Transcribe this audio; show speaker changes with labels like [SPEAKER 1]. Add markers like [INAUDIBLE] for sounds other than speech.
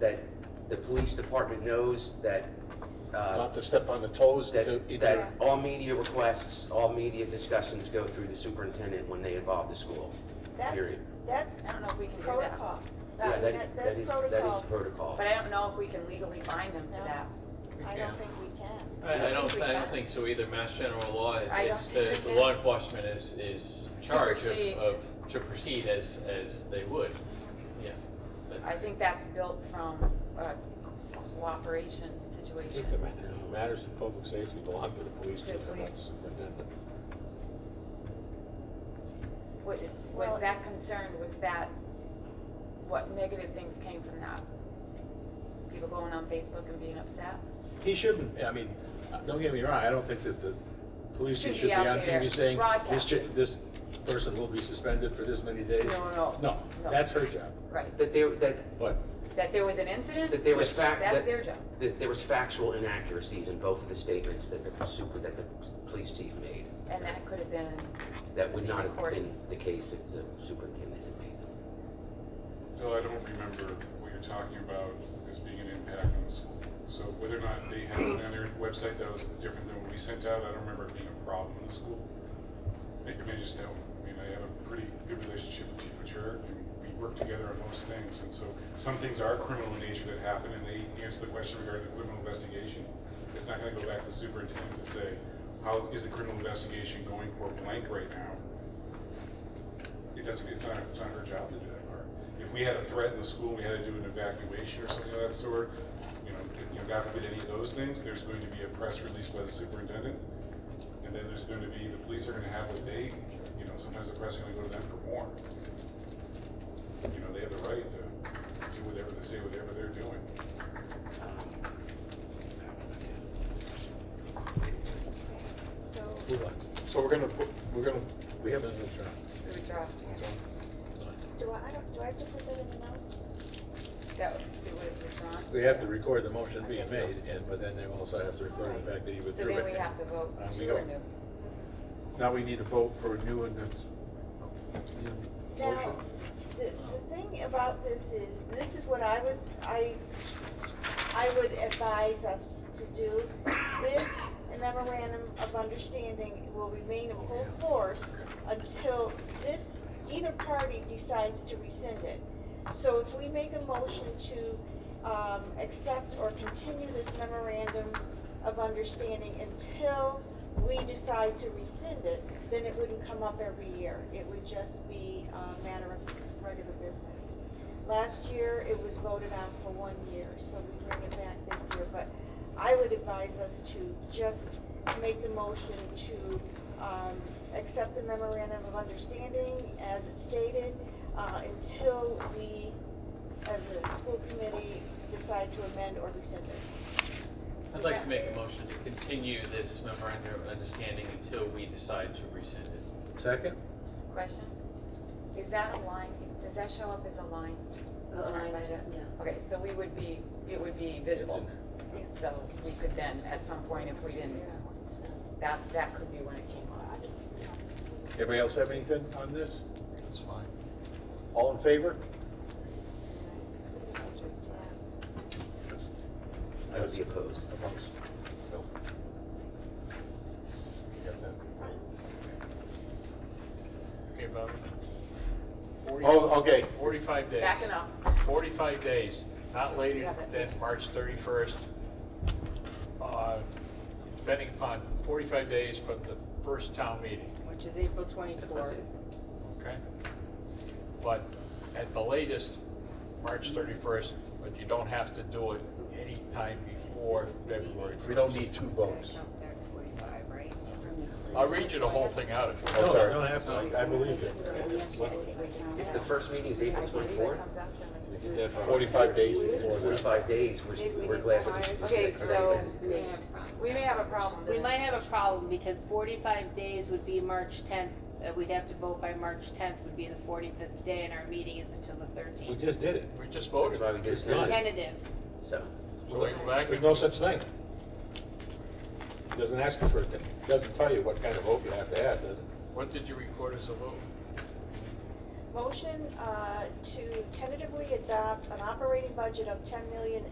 [SPEAKER 1] that the police department knows that, uh,
[SPEAKER 2] Not to step on the toes to
[SPEAKER 1] that,
[SPEAKER 2] each
[SPEAKER 1] that all media requests, all media discussions go through the superintendent when they involve the school.
[SPEAKER 3] That's,
[SPEAKER 1] Period.
[SPEAKER 3] that's
[SPEAKER 4] I don't know if we can do that.
[SPEAKER 3] protocol.
[SPEAKER 1] Yeah,
[SPEAKER 3] That-
[SPEAKER 1] that, that
[SPEAKER 3] that- That's
[SPEAKER 1] is, that is
[SPEAKER 3] protocol.
[SPEAKER 1] protocol.
[SPEAKER 4] But I don't know if we can legally bind them to
[SPEAKER 3] No.
[SPEAKER 4] that.
[SPEAKER 5] We
[SPEAKER 3] I
[SPEAKER 5] can't.
[SPEAKER 3] don't think we can.
[SPEAKER 5] I, I
[SPEAKER 4] don't
[SPEAKER 5] don't,
[SPEAKER 4] think we
[SPEAKER 5] I
[SPEAKER 4] can.
[SPEAKER 5] don't think so either, mass general law,
[SPEAKER 4] I don't
[SPEAKER 5] it's,
[SPEAKER 4] think
[SPEAKER 5] the
[SPEAKER 4] we
[SPEAKER 5] the
[SPEAKER 4] can.
[SPEAKER 5] law enforcement is, is charged of,
[SPEAKER 4] Supersedes.
[SPEAKER 5] of- to proceed as, as they would, yeah.
[SPEAKER 4] I
[SPEAKER 5] that's-
[SPEAKER 4] think that's built from a cooperation
[SPEAKER 2] I
[SPEAKER 4] situation.
[SPEAKER 2] think the matter- the matters of public safety belong to the police
[SPEAKER 4] To the
[SPEAKER 2] chief, not the
[SPEAKER 4] police.
[SPEAKER 2] superintendent.
[SPEAKER 4] Was,
[SPEAKER 3] Well-
[SPEAKER 4] was that concerned, was that, what negative things came from that? People going on Facebook and being upset?
[SPEAKER 2] He shouldn't, I mean, uh, don't get me wrong, I don't think that the police chief
[SPEAKER 4] Shouldn't
[SPEAKER 2] should be
[SPEAKER 4] be out
[SPEAKER 2] on
[SPEAKER 4] there
[SPEAKER 2] TV saying, this,
[SPEAKER 4] broadcasting.
[SPEAKER 2] chi- this person will be suspended for this many days.
[SPEAKER 4] No, no,
[SPEAKER 2] No,
[SPEAKER 4] no.
[SPEAKER 2] that's her job,
[SPEAKER 4] Right,
[SPEAKER 1] That there, that,
[SPEAKER 2] but
[SPEAKER 4] that there was an incident?
[SPEAKER 1] that there was
[SPEAKER 2] Yes.
[SPEAKER 1] fact,
[SPEAKER 4] That's
[SPEAKER 1] that,
[SPEAKER 4] their job.
[SPEAKER 1] that there was factual inaccuracies in both of the statements that the super, that the police chief made.
[SPEAKER 4] And that could have been,
[SPEAKER 1] That would not have been the case if the superintendent had made them.
[SPEAKER 6] Phil, I don't remember what you're talking about as being an impact on the school. So whether or not they had something on their website that was different than what we sent out, I don't remember it being a problem in the school. I mean, I just know, I mean, I have a pretty good relationship with Chief Mature, and we work together on most things. And so some things are criminal in nature that happen, and they answer the question regarding the criminal investigation. It's not gonna go back to the superintendent to say, how is the criminal investigation going for blank right now? it doesn't, it's not, it's not her job to do that part. If we had a threat in the school, we had to do an evacuation or something of that sort, you know, you know, God forbid any of those things, there's going to be a press release by the superintendent. And then there's going to be, the police are gonna have what they, you know, sometimes the press is gonna go to them for more. You know, they have the right to do whatever, they say whatever they're doing.
[SPEAKER 3] So,
[SPEAKER 2] move on.
[SPEAKER 5] So we're gonna, put- we're gonna,
[SPEAKER 2] We have a new job.
[SPEAKER 4] we were dropped.
[SPEAKER 3] do I, I don't, do I have to put that in the notes?
[SPEAKER 4] That, it was withdrawn.
[SPEAKER 2] They have to record the motion being made, and, but then they also have to record the fact that he
[SPEAKER 4] So
[SPEAKER 2] withdrew it.
[SPEAKER 4] then we have to vote
[SPEAKER 2] On we
[SPEAKER 4] to
[SPEAKER 2] go.
[SPEAKER 4] renew.
[SPEAKER 5] now we need to vote for a new and that's.
[SPEAKER 3] Now, the, the thing about this is, this is what I would, I, I would advise us to do. This [COUGHS] memorandum of understanding will remain in full force until this, either party decides to rescind it. So if we make a motion to, um, accept or continue this memorandum of understanding until we decide to rescind it, then it wouldn't come up every year. It would just be a matter of regular business. Last year, it was voted on for one year, so we bring it back this year. But I would advise us to just make the motion to um, accept the memorandum of understanding as it stated uh, until we, as a school committee, decide to amend or rescind it.
[SPEAKER 5] I'd like to make a motion to continue this memorandum of understanding until we decide to rescind it.
[SPEAKER 2] Second?
[SPEAKER 4] Question? Is that a line, does that show up as a line?
[SPEAKER 7] A line
[SPEAKER 4] budget?
[SPEAKER 7] item,
[SPEAKER 4] Okay, so we would be, it would be visible. So we could then, at some point, if we didn't, that, that could be when it came up.
[SPEAKER 8] Anybody else have anything on this?
[SPEAKER 5] That's fine.
[SPEAKER 8] All in favor?
[SPEAKER 1] I would be opposed.
[SPEAKER 8] Opposed? No. You got that?
[SPEAKER 5] Okay, Bob.
[SPEAKER 8] Oh, okay.
[SPEAKER 5] Forty-five days.
[SPEAKER 4] Backing up.
[SPEAKER 5] 45 days, not
[SPEAKER 4] You
[SPEAKER 5] later
[SPEAKER 4] have it.
[SPEAKER 5] than March 31st, uh, depending upon 45 days from the first town meeting,
[SPEAKER 7] Which is April twenty-fourth.
[SPEAKER 5] okay? But at the latest, March 31st, but you don't have to do it any time before February 1st.
[SPEAKER 8] We don't need two votes.
[SPEAKER 7] Forty-five, right?
[SPEAKER 5] I'll read you the whole thing out if you
[SPEAKER 2] No,
[SPEAKER 5] want.
[SPEAKER 2] you don't have to, I- I believe you.
[SPEAKER 1] If the first meeting is April twenty-fourth,
[SPEAKER 2] We did that for-
[SPEAKER 8] 45 days before that.
[SPEAKER 1] forty-five days, we're, we're glad for the.
[SPEAKER 4] Okay, so
[SPEAKER 7] Yeah.
[SPEAKER 4] we may have a problem.
[SPEAKER 7] We might have a problem because forty-five days would be March tenth, uh, we'd have to vote by March tenth would be the forty-fifth day and our meeting is until the
[SPEAKER 2] We
[SPEAKER 7] thirteenth.
[SPEAKER 2] just did it.
[SPEAKER 5] We just
[SPEAKER 1] That's
[SPEAKER 5] voted.
[SPEAKER 1] why we just did it,
[SPEAKER 7] Tentative.
[SPEAKER 1] so.
[SPEAKER 5] So we go back
[SPEAKER 2] There's
[SPEAKER 5] and-
[SPEAKER 2] no such thing. It doesn't ask you for a thing. It doesn't tell you what kind of vote you have to have, does it?
[SPEAKER 5] What did you record as a vote?
[SPEAKER 3] motion uh, to tentatively adopt an operating budget of ten million